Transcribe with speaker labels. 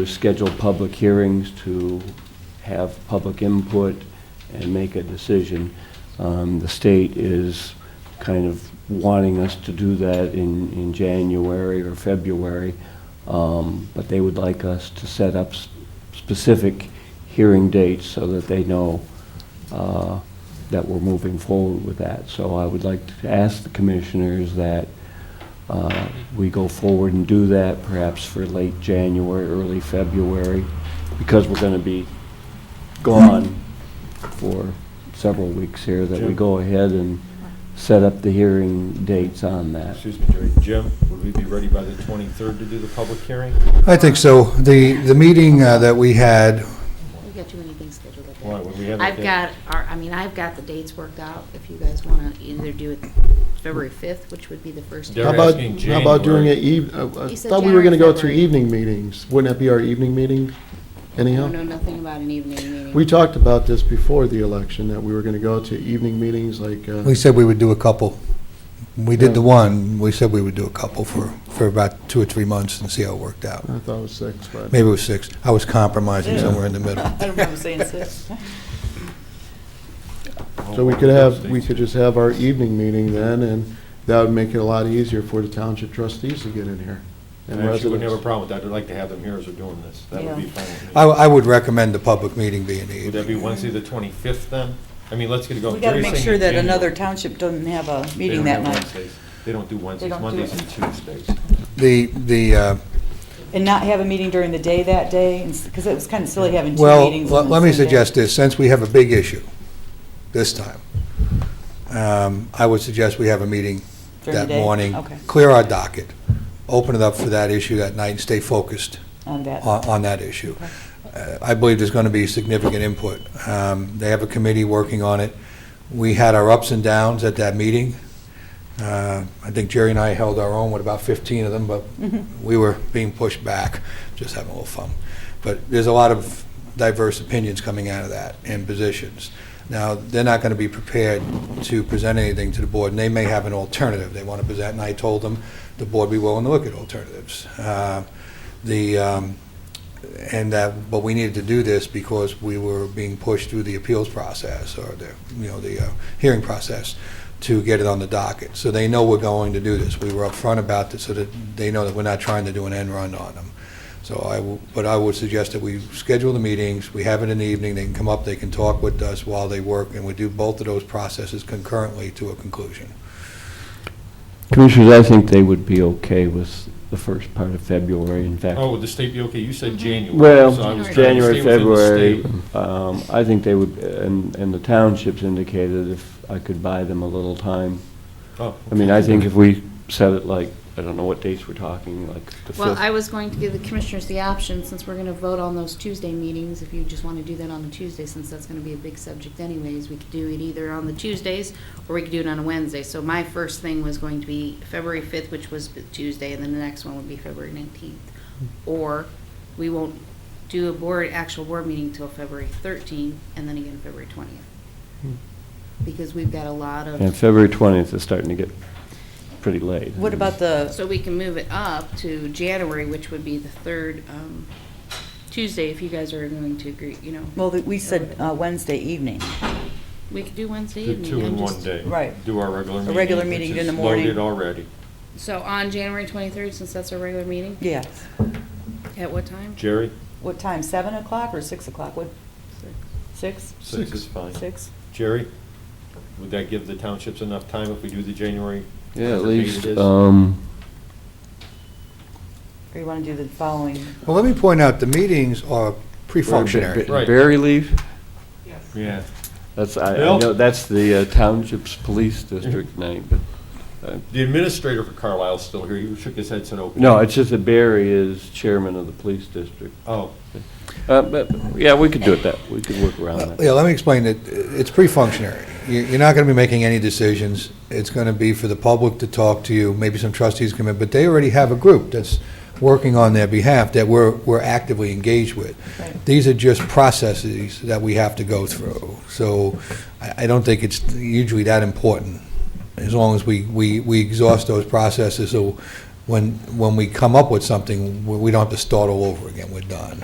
Speaker 1: is schedule public hearings, to have public input, and make a decision. Um, The state is kind of wanting us to do that in, in January or February, um, but they would like us to set up s- specific hearing dates so that they know uh, that we're moving forward with that. So I would like to ask the commissioners that uh, we go forward and do that, perhaps for late January, early February, because we're going to be gone for several weeks here, that we
Speaker 2: Jim?
Speaker 1: go ahead and set up the hearing dates on that.
Speaker 2: Excuse me, Jerry. Jim, would we be ready by the 23rd to do the public hearing?
Speaker 3: I think so. The, the meeting uh, that we had,
Speaker 4: We've got too many things scheduled at that.
Speaker 2: Why, would we have a
Speaker 4: I've
Speaker 2: date?
Speaker 4: got, our- I mean, I've got the dates worked out, if you guys want to either do it February 5th, which would be the first.
Speaker 2: They're
Speaker 5: How
Speaker 4: hearing.
Speaker 5: about,
Speaker 2: asking
Speaker 5: how about doing
Speaker 2: January.
Speaker 5: it eve, I- I
Speaker 4: He said
Speaker 5: thought we were gonna go
Speaker 4: January,
Speaker 5: through
Speaker 4: February.
Speaker 5: evening meetings. Wouldn't that be our evening meeting
Speaker 4: I
Speaker 5: anyhow?
Speaker 4: don't know nothing about an evening meeting.
Speaker 5: We talked about this before the election, that we were gonna go to evening meetings like, uh,
Speaker 3: we said we would do a couple. We did the
Speaker 5: Yeah.
Speaker 3: one, we said we would do a couple for, for about two or three months and see how it worked out.
Speaker 5: I thought it was six, but.
Speaker 3: Maybe it was six. I was compromising somewhere in the middle.
Speaker 6: I don't remember saying six.
Speaker 5: So we could have, we could just have our evening meeting then, and that would make it a lot easier for the township trustees to get in here.
Speaker 2: I
Speaker 5: and
Speaker 2: actually wouldn't have a
Speaker 5: residents.
Speaker 2: problem with that. I'd like to have them here as we're doing this. That would be
Speaker 6: Yeah.
Speaker 2: fine with
Speaker 3: I,
Speaker 2: me.
Speaker 3: I would recommend the public meeting being the
Speaker 2: Would that
Speaker 3: evening.
Speaker 2: be Wednesday, the 25th then? I mean, let's get it going.
Speaker 6: We gotta
Speaker 2: Jerry's
Speaker 6: make
Speaker 2: saying
Speaker 6: sure that
Speaker 2: January.
Speaker 6: another township doesn't have a
Speaker 2: They
Speaker 6: meeting
Speaker 2: don't
Speaker 6: that
Speaker 2: have
Speaker 6: night.
Speaker 2: Wednesdays. They don't do Wednesdays,
Speaker 6: don't do
Speaker 2: Mondays
Speaker 6: it.
Speaker 2: and Tuesdays.
Speaker 3: The, the, uh,
Speaker 6: And not have a meeting during the day that day, because it was kind of silly having two
Speaker 3: well,
Speaker 6: meetings.
Speaker 3: let
Speaker 6: on
Speaker 3: let me
Speaker 6: the same day.
Speaker 3: suggest this, since we have a big issue this time, um, I would suggest we have a meeting
Speaker 6: During the
Speaker 3: that
Speaker 6: day?
Speaker 3: morning.
Speaker 6: Okay,
Speaker 3: Clear our docket, open it up for that issue that night, and stay focused.
Speaker 6: on that.
Speaker 3: on on that issue. Uh, I believe there's going to be significant input. Um, They have a committee working on it. We had our ups and downs at that meeting. Uh, I think Jerry and I held our own with about 15 of them, but
Speaker 6: Mhm.
Speaker 3: we were being pushed back, just having a little fun. But there's a lot of diverse opinions coming out of that and positions. Now, they're not going to be prepared to present anything to the board, and they may have an alternative they want to present, and I told them the board be willing to look at alternatives. Uh, The, um, and that, but we needed to do this because we were being pushed through the appeals process or the, you know, the uh, hearing process to get it on the docket. So they know we're going to do this. We were upfront about this so that they know that we're not trying to do an end run on them. So I, w- but I would suggest that we schedule the meetings, we have it in the evening, they can come up, they can talk with us while they work, and we do both of those processes concurrently to a conclusion.
Speaker 1: Commissioners, I think they would be okay with the first part of February, in fact.
Speaker 2: Oh, would the state be okay? You said
Speaker 6: Mm-hmm.
Speaker 2: January. so I
Speaker 1: Well,
Speaker 2: was trying to
Speaker 1: January,
Speaker 2: stay within the
Speaker 1: February,
Speaker 2: state.
Speaker 1: um, I think they would, and, and the townships indicated if I could buy them a little time.
Speaker 2: Oh,
Speaker 1: I mean, I think if we set it like, I don't know what dates we're talking, like the
Speaker 4: Well, I
Speaker 1: fifth.
Speaker 4: was going to give the commissioners the option, since we're going to vote on those Tuesday meetings, if you just want to do that on the Tuesday, since that's going to be a big subject anyways, we could do it either on the Tuesdays, or we could do it on a Wednesday. So my first thing was going to be February 5th, which was the Tuesday, and then the next one would be February 19th.
Speaker 1: Hmm.
Speaker 4: Or we won't do a board, actual board meeting until February 13th, and then again February 20th. Because we've got a lot
Speaker 1: Hmm. And
Speaker 4: of,
Speaker 1: February twentieth is starting to get pretty late.
Speaker 6: What about the,
Speaker 4: so we can move it up to January, which would be the third um, Tuesday, if you guys are going to agree, you know.
Speaker 6: well, we said uh, Wednesday evening.
Speaker 4: We could do Wednesday
Speaker 2: Do
Speaker 4: evening.
Speaker 2: two in
Speaker 4: I'm
Speaker 2: one
Speaker 4: just-
Speaker 2: day.
Speaker 6: Right.
Speaker 2: Do our regular meeting.
Speaker 6: regular
Speaker 2: which
Speaker 6: meeting
Speaker 2: is
Speaker 6: in the morning.
Speaker 2: Loaded already.
Speaker 4: So on January 23rd, since that's our regular meeting,
Speaker 6: Yes.
Speaker 4: at what time?
Speaker 2: Jerry,
Speaker 6: What time, seven o'clock or six o'clock? What,
Speaker 4: Six.
Speaker 6: six?
Speaker 2: six is fine.
Speaker 6: Six?
Speaker 2: Jerry, would that give the townships enough time if we do the January?
Speaker 1: Yeah, at
Speaker 2: whatever date
Speaker 1: least,
Speaker 2: it is?
Speaker 1: um,
Speaker 6: Or you want to do the following?
Speaker 3: Well, let me point out, the meetings are pre-functionary.
Speaker 2: Right.
Speaker 1: Barry leave,
Speaker 2: Yeah.
Speaker 1: that's, I, I
Speaker 2: Bill?
Speaker 1: know, that's the uh, township's police district night, but
Speaker 2: The administrator for Carlisle's still here. He shook his head, said, "Okay."
Speaker 1: No, it's just that Barry is chairman of the police district.
Speaker 2: Oh,
Speaker 1: Uh, But, yeah, we could do it that, we could work around that.
Speaker 3: Yeah, let me explain it. It's pre-functionary. You- You're not going to be making any decisions. It's going to be for the public to talk to you, maybe some trustees come in, but they already have a group that's working on their behalf that we're, we're actively engaged with.
Speaker 6: Right.
Speaker 3: These are just processes that we have to go through. So I, I don't think it's usually that important, as long as we, we, we exhaust those processes so when, when we come up with something, we we don't have to start all over again, we're done.